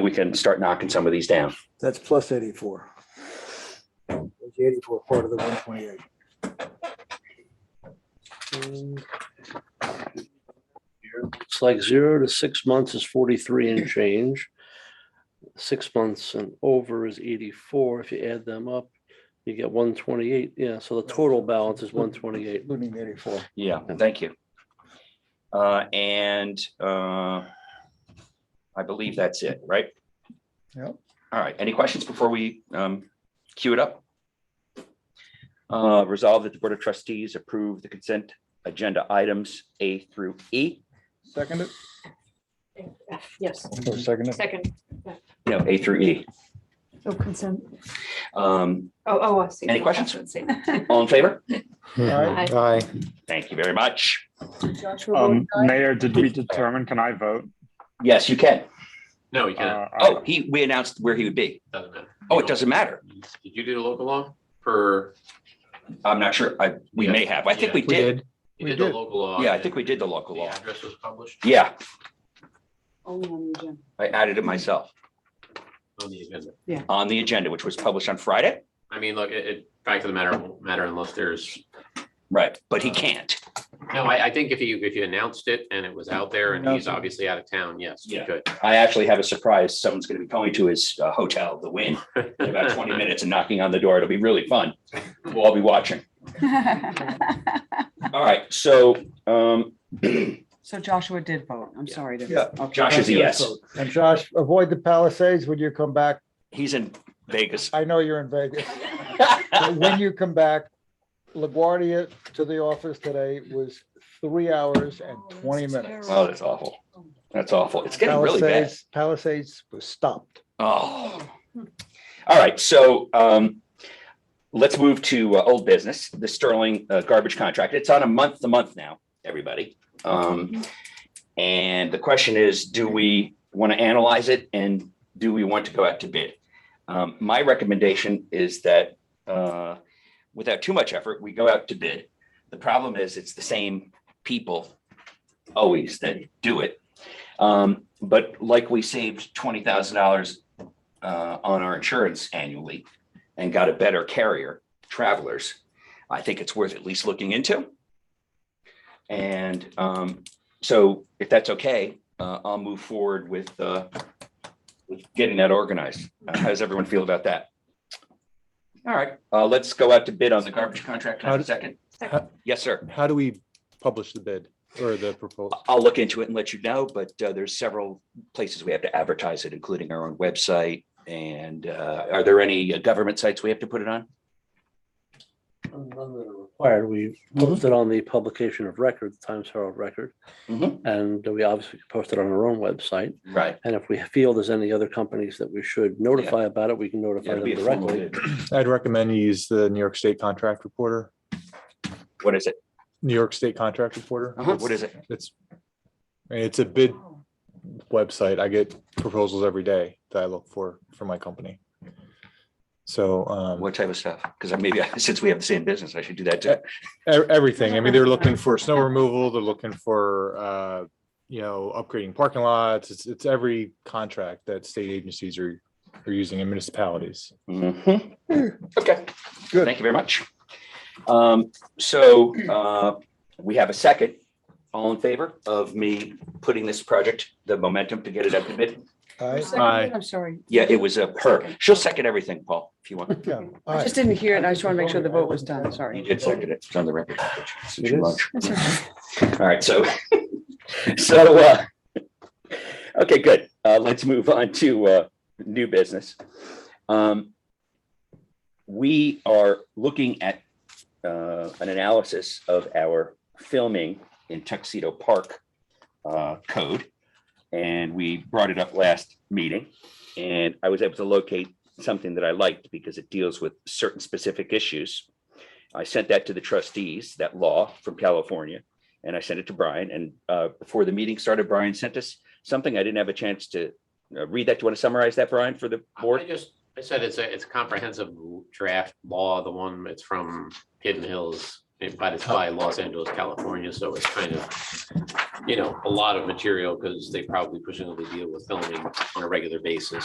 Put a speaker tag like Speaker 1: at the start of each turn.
Speaker 1: we can start knocking some of these down.
Speaker 2: That's plus eighty-four. That's Eighty-four, part of the one twenty-eight.
Speaker 3: It's like zero to six months is forty-three and change. Six months and over is eighty-four. If you add them up, you get one twenty-eight. Yeah, so the total balance is one twenty-eight.
Speaker 2: Including the eighty-four.
Speaker 1: Yeah, thank you. Uh, and, uh, I believe that's it, right?
Speaker 2: Yep.
Speaker 1: All right, any questions before we, um, queue it up? Uh, resolve that the Board of Trustees approve the consent agenda items A through E,
Speaker 2: Seconded,
Speaker 4: Yes,
Speaker 2: or seconded?
Speaker 4: second.
Speaker 1: no, A through E.
Speaker 4: Oh, consent.
Speaker 1: Um,
Speaker 4: Oh, oh, I see.
Speaker 1: Any questions?
Speaker 4: That's what I'm saying.
Speaker 1: all in favor?
Speaker 5: Hmm.
Speaker 2: Aye.
Speaker 5: Aye.
Speaker 1: Thank you very much.
Speaker 4: Joshua
Speaker 6: Um,
Speaker 4: votes aye.
Speaker 6: Mayor, did we determine, can I vote?
Speaker 1: Yes, you can.
Speaker 7: No, you can't.
Speaker 6: Uh,
Speaker 1: Oh, he, we announced where he would be.
Speaker 7: Doesn't matter.
Speaker 1: Oh,
Speaker 7: You
Speaker 1: it
Speaker 7: don't-
Speaker 1: doesn't matter.
Speaker 7: Did you do the local law for?
Speaker 1: I'm not sure. I, we may have. I think we
Speaker 5: We
Speaker 1: did.
Speaker 5: did.
Speaker 7: You
Speaker 2: We
Speaker 7: did the
Speaker 2: did.
Speaker 7: local law.
Speaker 1: Yeah, I
Speaker 7: and
Speaker 1: think we did the local
Speaker 7: The
Speaker 1: law.
Speaker 7: address was published
Speaker 1: Yeah,
Speaker 4: Only on the agenda.
Speaker 1: I added it myself
Speaker 7: on the agenda.
Speaker 1: on the agenda, which was published on Friday.
Speaker 7: I mean, look, it, it, fact of the matter won't matter unless there's,
Speaker 1: Right, but he can't.
Speaker 7: no, I, I think if you, if you announced it and it was out there and he's obviously out of town, yes, you
Speaker 1: Yeah.
Speaker 7: could.
Speaker 1: I actually have a surprise. Someone's going to be going to his uh, hotel, the Win, in about 20 minutes and knocking on the door. It'll be really fun. We'll all be watching. All right, so um,
Speaker 8: So Joshua did vote. I'm
Speaker 7: Yeah.
Speaker 8: sorry. to-
Speaker 2: Yeah.
Speaker 8: Okay.
Speaker 1: Josh is a yes.
Speaker 2: And Josh, avoid the Palisades when you come back.
Speaker 1: He's in Vegas.
Speaker 2: I know you're in Vegas. But When you come back, LaGuardia to the office today was three hours and twenty minutes.
Speaker 1: Oh, that's awful. That's awful. It's getting really bad.
Speaker 2: Palisades, Palisades was stopped.
Speaker 1: Oh. All right, so um, let's move to uh, old business, the Sterling uh, garbage contract. It's on a month to month now, everybody. Um, and the question is, do we want to analyze it and do we want to go out to bid? Um, my recommendation is that uh, without too much effort, we go out to bid. The problem is, it's the same people always that do it. Um, but like we saved twenty thousand dollars uh, on our insurance annually and got a better carrier, Travelers, I think it's worth at least looking into. And um, so if that's okay, uh, I'll move forward with, uh, with getting that organized. Uh, How does everyone feel about that? All right, uh, let's go out to bid on the garbage contract. Can I have a second?
Speaker 4: Second.
Speaker 1: Yes, sir.
Speaker 5: How do we publish the bid or the proposal?
Speaker 1: I'll look into it and let you know, but uh, there's several places we have to advertise it, including our own website. And uh, are there any uh, government sites we have to put it on?
Speaker 3: Required, we posted on the publication of record, the Times Herald Record,
Speaker 1: Mhm.
Speaker 3: and we obviously posted on our own website.
Speaker 1: Right.
Speaker 3: And if we feel there's any other companies that we should notify about it, we can notify
Speaker 1: It'll
Speaker 3: them
Speaker 1: be a formal
Speaker 3: directly.
Speaker 1: bid.
Speaker 5: I'd recommend you use the New York State Contract Reporter,
Speaker 1: What is it?
Speaker 5: New York State Contract Reporter.
Speaker 1: Uh-huh. What is it?
Speaker 5: It's, I mean, it's a bid website. I get proposals every day that I look for, for my company. So, um,
Speaker 1: What type of stuff? Because maybe I- since we have the same business, I should do that too.
Speaker 5: e- everything. I mean, they're looking for snow removal, they're looking for, uh, you know, upgrading parking lots. It's, it's every contract that state agencies are, are using in municipalities.
Speaker 1: Mhm. Okay,
Speaker 2: Good.
Speaker 1: Thank you very much. Um, so uh, we have a second. All in favor of me putting this project, the momentum to get it up to bid?
Speaker 2: All right.
Speaker 8: Who
Speaker 5: Aye.
Speaker 8: seconded it? I'm sorry.
Speaker 1: Yeah, it was uh, her. She'll second everything, Paul, if you want.
Speaker 2: Yeah, all
Speaker 8: I
Speaker 2: right.
Speaker 8: just didn't hear it. and I just want to make sure the vote was done. Sorry.
Speaker 1: You did second it. It's on the record. Since
Speaker 5: It
Speaker 1: your
Speaker 5: is.
Speaker 1: lunch.
Speaker 8: That's okay.
Speaker 1: All right, so, so, uh, okay, good. Uh, let's move on to, uh, new business. Um, we are looking at, uh, an analysis of our filming in Tuxedo Park, uh, code. And we brought it up last meeting and I was able to locate something that I liked because it deals with certain specific issues. I sent that to the trustees, that law from California and I sent it to Brian. And uh, before the meeting started, Brian sent us something. I didn't have a chance to uh, read that. Do you want to summarize that, Brian, for the
Speaker 7: I- I
Speaker 1: board?
Speaker 7: just, I said it's a, it's a comprehensive draft law, the one, it's from Hidden Hills and- but it's by Los Angeles, California, so it's kind of, you know, a lot of material because they probably presumably deal with filming on a regular basis.